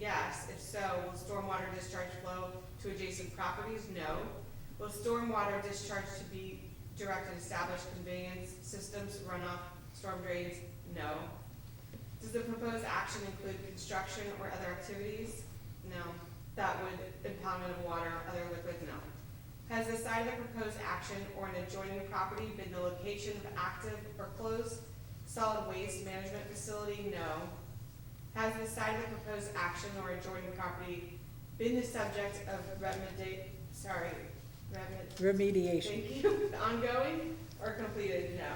Yes, if so, will stormwater discharge flow to adjacent properties? No. Will stormwater discharge to be directed to established conveyance systems, runoff, storm drains? No. Does the proposed action include construction or other activities? No. That would impoundment of water, other liquid? No. Has the site of the proposed action or an adjoining property been the location of active or closed solid waste management facility? No. Has the site of the proposed action or adjoining property been the subject of remedi, sorry, remed, remediation. thank you, ongoing or completed? No.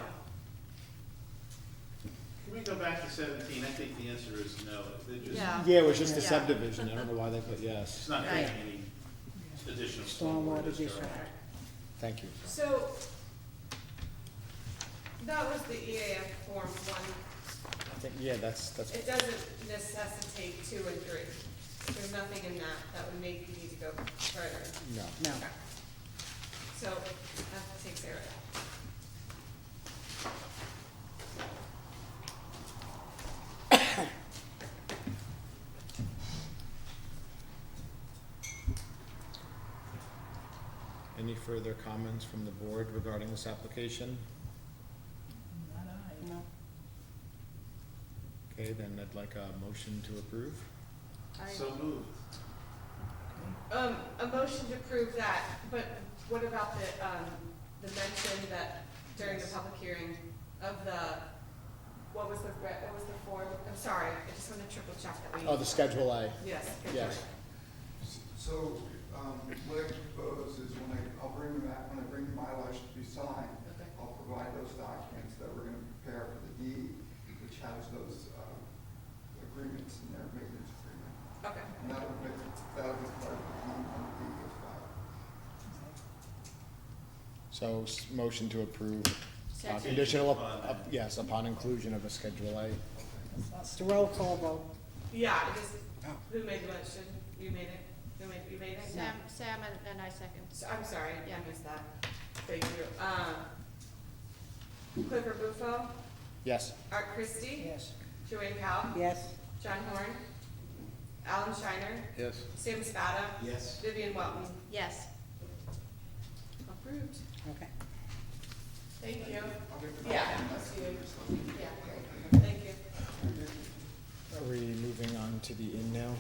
Can we go back to seventeen? I think the answer is no. They're just, Yeah. Yeah, it was just a Yeah. subdivision, I don't know why they put yes. it's not Right. creating any additional Stormwater stormwater discharge. discharge. Thank you. So, that was the EAF form one. I think, yeah, that's, that's, It doesn't necessitate two and three. There's nothing in that that would make you need to go further. no. No. Okay. So, that takes care of that. Any further comments from the board regarding this application? No. Okay, then I'd like a motion to approve. So moved. Um, a motion to approve that, but what about the, um, the mention that during the public hearing of the, what was the, re- what was the form? I'm sorry, I just want to triple check that we. Oh, the Schedule A, Yes. good Yes. job. So, um, what I propose is when I, I'll bring them back, when I bring my license to be signed, Okay. I'll provide those documents that we're gonna prepare for the deed, which has those, um, agreements in there, maintenance agreement. Okay, And that would make, that would be part of the content of the deed as well. so s- motion to approve. Uh, Schedule. Conditional, up- Upon- up- yes, upon inclusion of a Schedule A. It's a roll call vote. yeah, I just, who made the motion? You made it? Who made, you made it? Sam, Sam and, and I second. So, I'm sorry, Yeah. I missed that. Thank you. Um, Clifford Bufo, Yes, Art Christie, Yes. Joanne Cowell, Yes. John Horn, Alan Shiner, Yes. Sam Spada, Yes. Vivian Welton. Yes. Approved. Okay. Thank you. I'll give the Yeah. documents that's to you. good. Yeah. Thank you. are we moving on to the in now?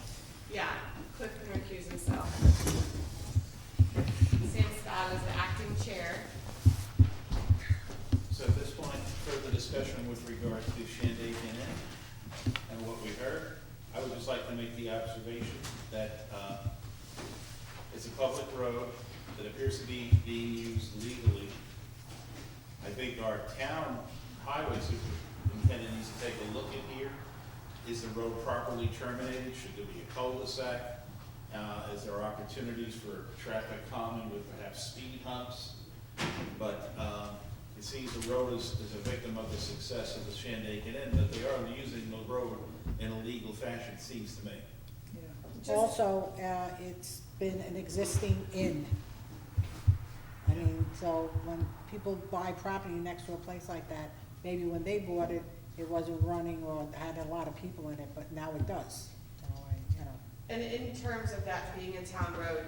Yeah, Cliff can recuse himself. Sam Scott is the acting chair. So at this point, further discussion with regard to Shandaken Inn and what we heard. I would just like to make the observation that uh, it's a public road that appears to be being used legally. I think our town highway superintendent needs to take a look at here. Is the road properly terminated? Should there be a cul-de-sac? Uh, Is there opportunities for traffic calming with perhaps speed humps? But um, it seems the road is, is a victim of the success of the Shandaken Inn, but they are using the road in a legal fashion, it seems to me. Also, uh, it's been an existing inn. I mean, so when people buy property next to a place like that, maybe when they bought it, it wasn't running or had a lot of people in it, but now it does. So I, you know, And in terms of that being a town road,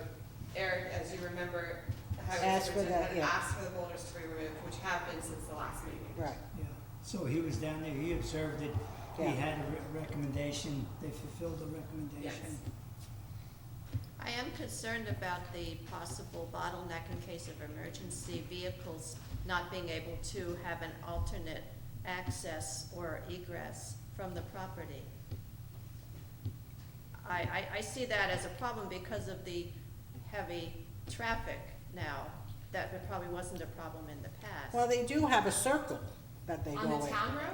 Eric, as you remember, the highway Asked for that, superintendent yeah. asked for the boulders to be removed, which have been since the last meeting. right. Yeah, so he was down there, he observed it, he Yeah. had a re- recommendation, they fulfilled the recommendation. I am concerned about the possible bottleneck in case of emergency vehicles not being able to have an alternate access or egress from the property. I, I, I see that as a problem because of the heavy traffic now, that probably wasn't a problem in the past. Well, they do have a circle that they go in. On the town road?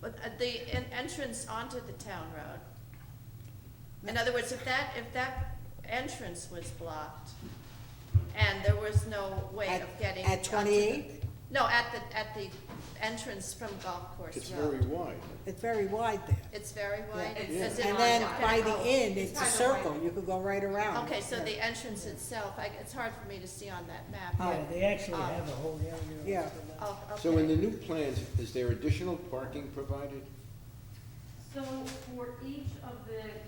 But uh, the en- entrance onto the town road. In other words, if that, if that entrance was blocked and there was no way At- of getting. At onto the- twenty-eight, No, at the, at the entrance from Golf Course Road. wide. it's very wide there. It's very wide. It's- Does it And not then block it? by the Oh, inn, it's it's a kind of circle, wide. you could go right around. Okay, so Yeah. the entrance itself, I, it's hard for me to see on that map. Oh, Yeah, they actually Um, have a whole area. Uh, Yeah. Oh, So in okay. the new plans, is there additional parking provided? So for each of the